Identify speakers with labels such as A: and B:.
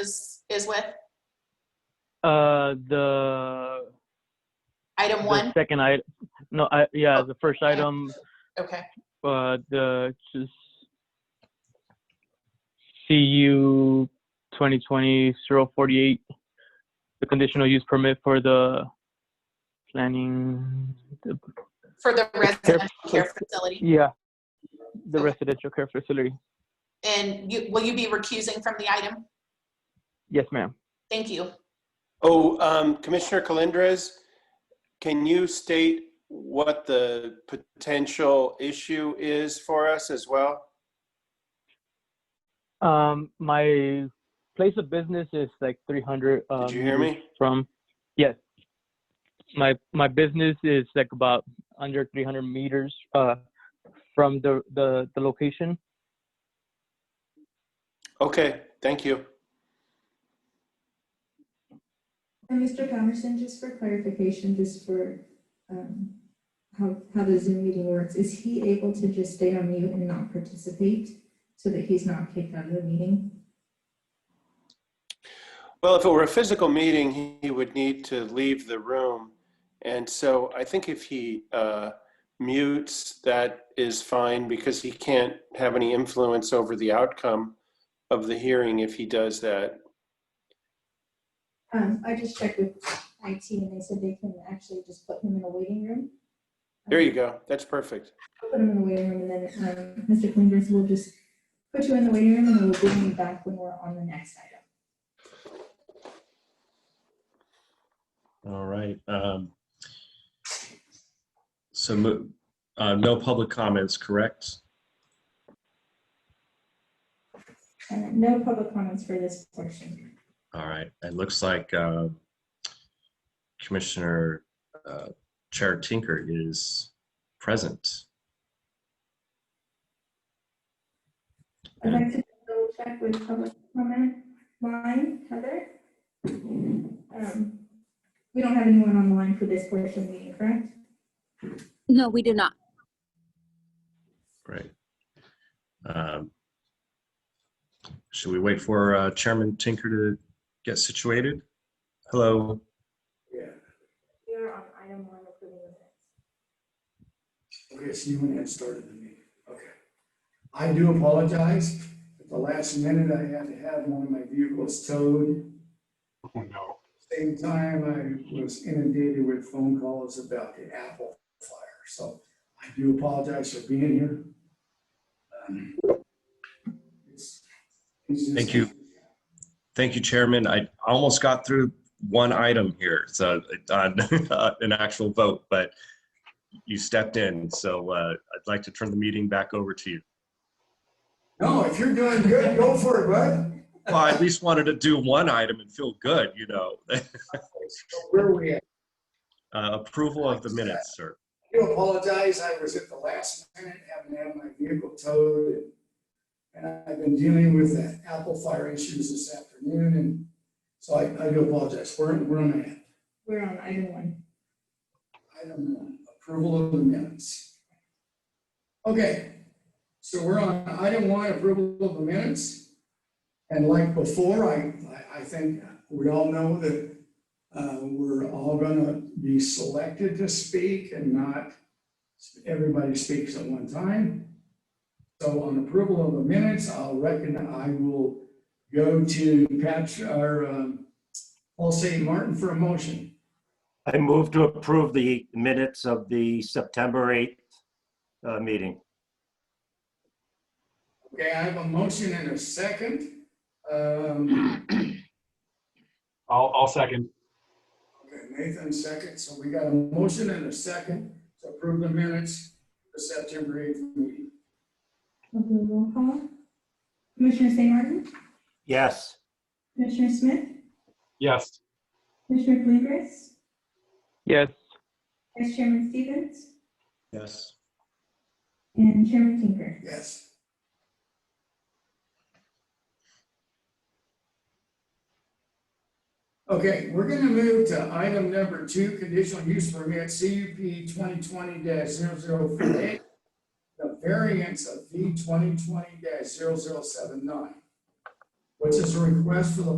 A: is, is with?
B: Uh, the,
A: Item
B: the
A: one?
B: second item, no, I, yeah, the first item,
A: Okay,
B: uh, the, just CU 2020-048, the conditional use permit for the planning, the-
A: for the residential care facility.
B: yeah, the residential care facility.
A: And you, will you be recusing from the item?
B: Yes, ma'am.
A: Thank you.
C: Oh, um, Commissioner Calendres, can you state what the potential issue is for us as well?
B: Um, my place of business is like 300. um,
C: Did you hear me?
B: from yes my my business is like about under 300 meters uh from the the, the location
C: Okay, thank you.
D: And Mr. Patterson, just for clarification, just for um, how, how the Zoom meeting works, is he able to just stay on mute and not participate so that he's not kicked out of the meeting?
C: Well, if it were a physical meeting, he- he would need to leave the room. And so I think if he uh, mutes, that is fine because he can't have any influence over the outcome of the hearing if he does that.
D: Um, I just checked with IT and they said they can actually just put him in a waiting room.
C: There you go. That's perfect.
D: Put him in the waiting room and then um, Mr. Flinders will just put you in the waiting room and we'll bring you back when we're on the next item.
E: All right. um, So mo- uh, no public comments, correct?
D: Uh, No public comments for this portion.
E: All right. It looks like uh, Commissioner uh, Chair Tinker is present.
D: I'd like to double check with public comment line, Heather. Um, We don't have anyone on the line for this portion of the meeting, correct?
F: No, we do not.
E: Great. Um, Should we wait for uh, Chairman Tinker to get situated? Hello?
D: We are on item one, approving the minutes.
G: Okay, so you went ahead and started the meeting, okay. I do apologize, at the last minute, I had to have one of my vehicles towed.
H: Oh, no.
G: Same time, I was inundated with phone calls about the Apple fire, so I do apologize for being here. Um, it's- it's just-
E: Thank you. Thank you, Chairman. I almost got through one item here, so on uh, an actual vote, but you stepped in, so uh, I'd like to turn the meeting back over to you.
G: No, if you're doing good, go for it, bud.
E: Well, I at least wanted to do one item and feel good, you know.
G: Where are we at?
E: Uh, Approval of the minutes, sir.
G: I do apologize, I was at the last minute, having had my vehicle towed. and- And I've been dealing with the Apple Fire issues this afternoon, and so I, I do apologize. Where, where am I at?
D: We're on item one.
G: Item one, approval of the minutes. Okay, so we're on item one, approval of the minutes. And like before, I, I, I think we all know that, uh, we're all gonna be selected to speak and not everybody speaks at one time. So on approval of the minutes, I'll reckon I will go to Pat, or, um, Paul St. Martin for a motion.
H: I move to approve the minutes of the September 8th uh, meeting.
G: Okay, I have a motion and a second. Um,
I: I'll, I'll second.
G: okay, Nathan second, so we got a motion and a second to approve the minutes for September eighth meeting.
D: We'll do a roll call. Commissioner St. Martin,
H: Yes.
D: Commissioner Smith,
I: Yes.
D: Commissioner Bluegrass,
B: yes
D: Vice Chairman Stevens,
E: Yes.
D: and Chairman Tinker.
G: Yes. Okay, we're gonna move to item number two, conditional use permit CUP twenty twenty 48 The variance of V twenty twenty 79 which is a request for the